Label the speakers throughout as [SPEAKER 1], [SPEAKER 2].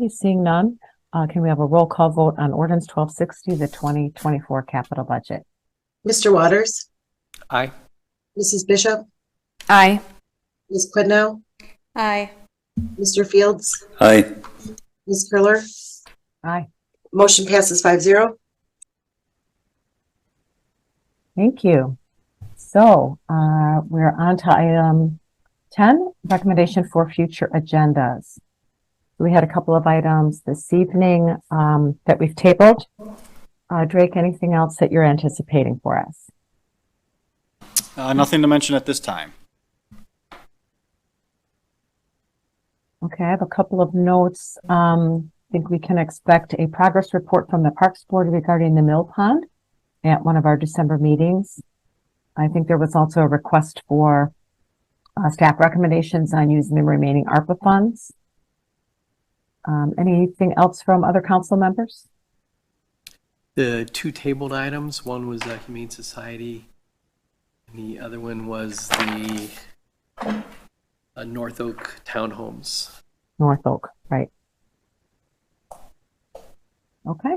[SPEAKER 1] Okay, seeing none, uh, can we have a roll call vote on ordinance twelve sixty, the twenty twenty-four capital budget?
[SPEAKER 2] Mr. Waters?
[SPEAKER 3] Aye.
[SPEAKER 2] Mrs. Bishop?
[SPEAKER 4] Aye.
[SPEAKER 2] Ms. Quidnow?
[SPEAKER 4] Aye.
[SPEAKER 2] Mr. Fields?
[SPEAKER 3] Aye.
[SPEAKER 2] Ms. Curler?
[SPEAKER 1] Aye.
[SPEAKER 2] Motion passes five zero.
[SPEAKER 1] Thank you. So, uh, we're on to item ten, recommendation for future agendas. We had a couple of items this evening, um, that we've tabled. Uh, Drake, anything else that you're anticipating for us?
[SPEAKER 5] Uh, Nothing to mention at this time.
[SPEAKER 1] Okay, I have a couple of notes. Um, I think we can expect a progress report from the Parks Board regarding the mill pond at one of our December meetings. I think there was also a request for uh, staff recommendations on using the remaining ARPA funds. Um, anything else from other council members?
[SPEAKER 6] The two tabled items, one was the Humane Society, and the other one was the uh, North Oak Townhomes.
[SPEAKER 1] North Oak, right? Okay.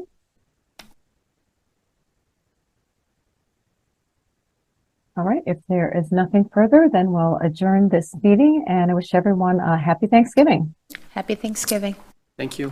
[SPEAKER 1] All right, if there is nothing further, then we'll adjourn this meeting and I wish everyone a happy Thanksgiving.
[SPEAKER 4] Happy Thanksgiving.
[SPEAKER 6] Thank you.